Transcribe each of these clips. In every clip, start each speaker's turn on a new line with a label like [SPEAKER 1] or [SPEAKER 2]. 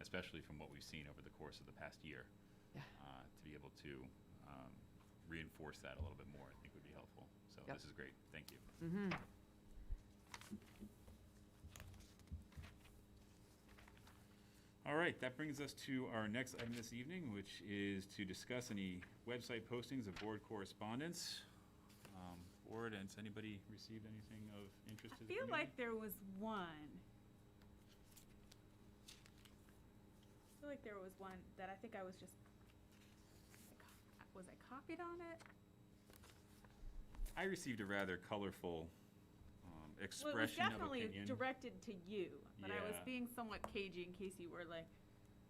[SPEAKER 1] especially from what we've seen over the course of the past year.
[SPEAKER 2] Yeah.
[SPEAKER 1] Uh, to be able to um, reinforce that a little bit more, I think would be helpful. So
[SPEAKER 2] Yep.
[SPEAKER 1] this is great. Thank you.
[SPEAKER 2] Mm-hmm.
[SPEAKER 1] All right, that brings us to our next item this evening, which is to discuss any website postings of board correspondence. Um, Board, has anybody received anything of interest to
[SPEAKER 3] I
[SPEAKER 1] the
[SPEAKER 3] feel
[SPEAKER 1] community?
[SPEAKER 3] like there was one. I feel like there was one that I think I was just, was I copied on it?
[SPEAKER 1] I received a rather colorful um,
[SPEAKER 3] Well, it was
[SPEAKER 1] expression of
[SPEAKER 3] definitely
[SPEAKER 1] opinion.
[SPEAKER 3] directed to you, but I was
[SPEAKER 1] Yeah.
[SPEAKER 3] being somewhat cagey in case you were like,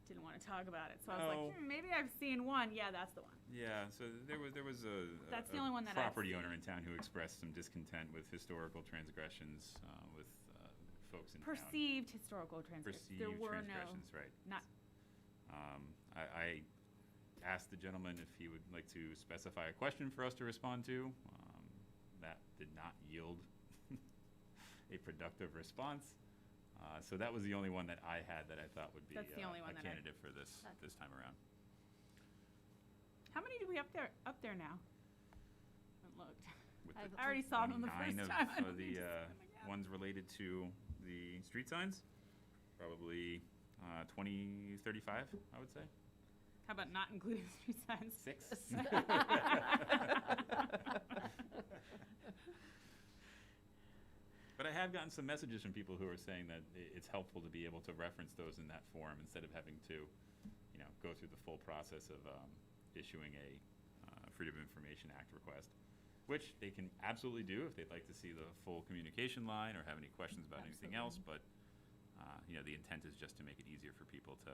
[SPEAKER 3] didn't want to talk about it. So I was
[SPEAKER 1] No.
[SPEAKER 3] like, hmm, maybe I've seen one. Yeah, that's the one.
[SPEAKER 1] Yeah, so there was, there was a.
[SPEAKER 3] That's
[SPEAKER 1] a-
[SPEAKER 3] the only one that I've
[SPEAKER 1] Property
[SPEAKER 3] seen.
[SPEAKER 1] owner in town who expressed some discontent with historical transgressions uh, with uh, folks in town.
[SPEAKER 3] Perceived historical transgressions. There
[SPEAKER 1] Perceived
[SPEAKER 3] were no,
[SPEAKER 1] transgressions, right.
[SPEAKER 3] not,
[SPEAKER 1] Um, I, I asked the gentleman if he would like to specify a question for us to respond to. Um, that did not yield a productive response. Uh, so that was the only one that I had that I thought would be
[SPEAKER 3] That's the
[SPEAKER 1] uh,
[SPEAKER 3] only one
[SPEAKER 1] a
[SPEAKER 3] that I-
[SPEAKER 1] candidate for this
[SPEAKER 3] Okay.
[SPEAKER 1] this time around.
[SPEAKER 3] how many do we up there, up there now? Haven't looked.
[SPEAKER 1] With
[SPEAKER 2] I've-
[SPEAKER 3] I already saw them the
[SPEAKER 1] 29
[SPEAKER 3] first
[SPEAKER 1] of-
[SPEAKER 3] time. I "Oh
[SPEAKER 1] of
[SPEAKER 3] need
[SPEAKER 1] the
[SPEAKER 3] to
[SPEAKER 1] uh,
[SPEAKER 3] see them again.
[SPEAKER 1] ones related to the street signs, probably uh, 20, 35, I would say.
[SPEAKER 3] How about not including street signs?
[SPEAKER 1] Six. But I have gotten some messages from people who are saying that i- it's helpful to be able to reference those in that form instead of having to, you know, go through the full process of um, issuing a uh, Freedom of Information Act request, which they can absolutely do if they'd like to see the full communication line or have any questions about anything else. But, uh, you know, the intent is just to make it easier for people to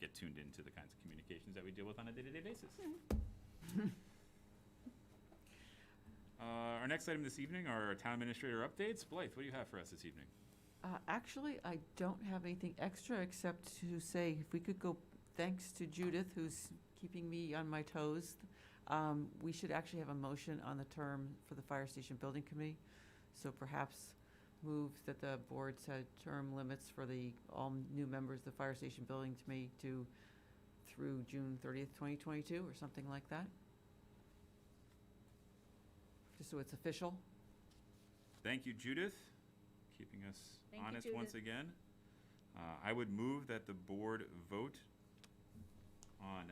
[SPEAKER 1] get tuned into the kinds of communications that we deal with on a day-to-day basis. Uh, Our next item this evening are our town administrator updates. Blythe, what do you have for us this evening?
[SPEAKER 2] Uh, Actually, I don't have anything extra except to say if we could go, thanks to Judith, who's keeping me on my toes, um, we should actually have a motion on the term for the Fire Station Building Committee. So perhaps move that the board set term limits for the, all new members of the Fire Station Building Committee to through June 30th, 2022, or something like that. Just so it's official.
[SPEAKER 1] Thank you, Judith, keeping us
[SPEAKER 3] Thank you,
[SPEAKER 1] honest once
[SPEAKER 3] Judith.
[SPEAKER 1] again. Uh, I would move that the board vote on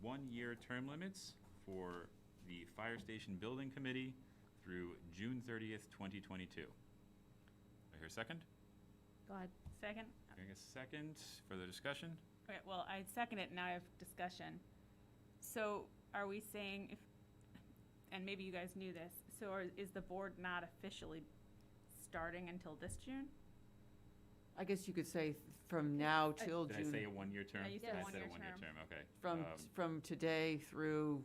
[SPEAKER 1] one-year term limits for the Fire Station Building Committee through June 30th, 2022. I hear a second?
[SPEAKER 4] God,
[SPEAKER 3] Second?
[SPEAKER 1] Hearing a second. Further discussion?
[SPEAKER 3] Okay, well, I second it, now I have discussion. So are we saying if, and maybe you guys knew this, so are- is the board not officially starting until this June?
[SPEAKER 2] I guess you could say from now till
[SPEAKER 1] Did I say a
[SPEAKER 2] June,
[SPEAKER 1] one-year term?
[SPEAKER 3] Yeah, you said
[SPEAKER 1] I
[SPEAKER 3] one-year
[SPEAKER 1] a one-year term,
[SPEAKER 3] term.
[SPEAKER 1] okay.
[SPEAKER 2] from,
[SPEAKER 1] Um,
[SPEAKER 2] from today through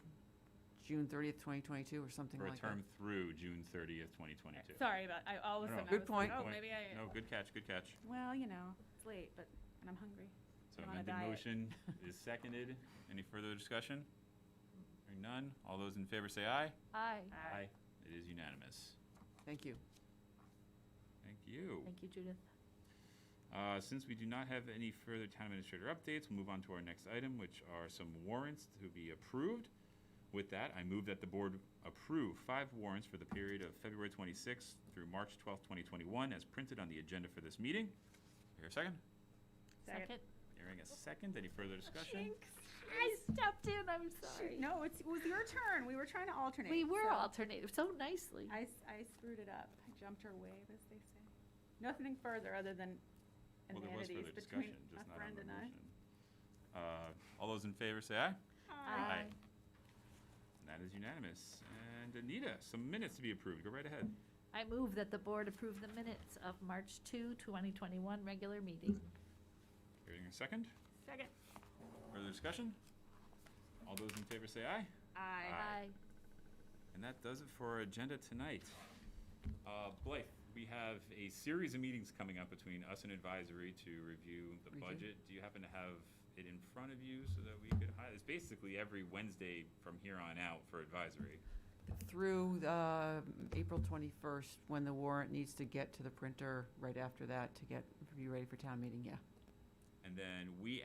[SPEAKER 2] June 30th, 2022, or something
[SPEAKER 1] For a
[SPEAKER 2] like
[SPEAKER 1] term
[SPEAKER 2] that.
[SPEAKER 1] through June 30th, 2022.
[SPEAKER 3] Sorry about, I, all of a
[SPEAKER 1] No, no.
[SPEAKER 3] sudden I
[SPEAKER 2] Good
[SPEAKER 3] was
[SPEAKER 2] point.
[SPEAKER 3] like, oh,
[SPEAKER 1] Point.
[SPEAKER 3] maybe
[SPEAKER 1] No,
[SPEAKER 3] I,
[SPEAKER 1] good catch, good catch.
[SPEAKER 3] well, you know, it's late, but, and I'm hungry.
[SPEAKER 1] So
[SPEAKER 3] I'm on a
[SPEAKER 1] amended
[SPEAKER 3] diet.
[SPEAKER 1] motion is seconded. Any further discussion? Hearing none. All those in favor say aye.
[SPEAKER 4] aye.
[SPEAKER 3] Aye.
[SPEAKER 1] It is unanimous.
[SPEAKER 2] Thank you.
[SPEAKER 1] Thank you.
[SPEAKER 4] Thank you, Judith.
[SPEAKER 1] Uh, Since we do not have any further town administrator updates, we'll move on to our next item, which are some warrants to be approved. With that, I move that the board approve five warrants for the period of February 26th through March 12th, 2021, as printed on the agenda for this meeting. Here a second.
[SPEAKER 4] Second.
[SPEAKER 1] Hearing a second. Any further discussion?
[SPEAKER 4] I stepped in, I'm sorry.
[SPEAKER 3] No, it's, it was your turn, we were trying to alternate.
[SPEAKER 4] We were
[SPEAKER 3] so-
[SPEAKER 4] alternating so nicely.
[SPEAKER 3] I, s- I screwed it up. I jumped her wave, as they say. Nothing further other than
[SPEAKER 1] Well, there was
[SPEAKER 3] amenities
[SPEAKER 1] further
[SPEAKER 3] between
[SPEAKER 1] discussion, just
[SPEAKER 3] a
[SPEAKER 1] not on
[SPEAKER 3] friend
[SPEAKER 1] the
[SPEAKER 3] and I.
[SPEAKER 1] motion. Uh, All those in favor, say aye.
[SPEAKER 3] Aye.
[SPEAKER 4] Aye.
[SPEAKER 1] And That is unanimous. And Anita, some minutes to be approved. Go right ahead.
[SPEAKER 4] I move that the board approve the minutes of March 2, 2021, regular meeting.
[SPEAKER 1] Hearing a second.
[SPEAKER 3] Second.
[SPEAKER 1] Further discussion? All those in favor say aye.
[SPEAKER 3] Aye.
[SPEAKER 1] Aye. And that does it for our agenda tonight. Uh, Blythe, we have a series of meetings coming up between us and advisory to review the
[SPEAKER 2] We do.
[SPEAKER 1] budget. Do you happen to have it in front of you so that we could hi It's basically every Wednesday from here on out for advisory.
[SPEAKER 2] Through uh, April 21st, when the warrant needs to get to the printer, right after that, to get, be ready for town meeting, yeah.
[SPEAKER 1] And then we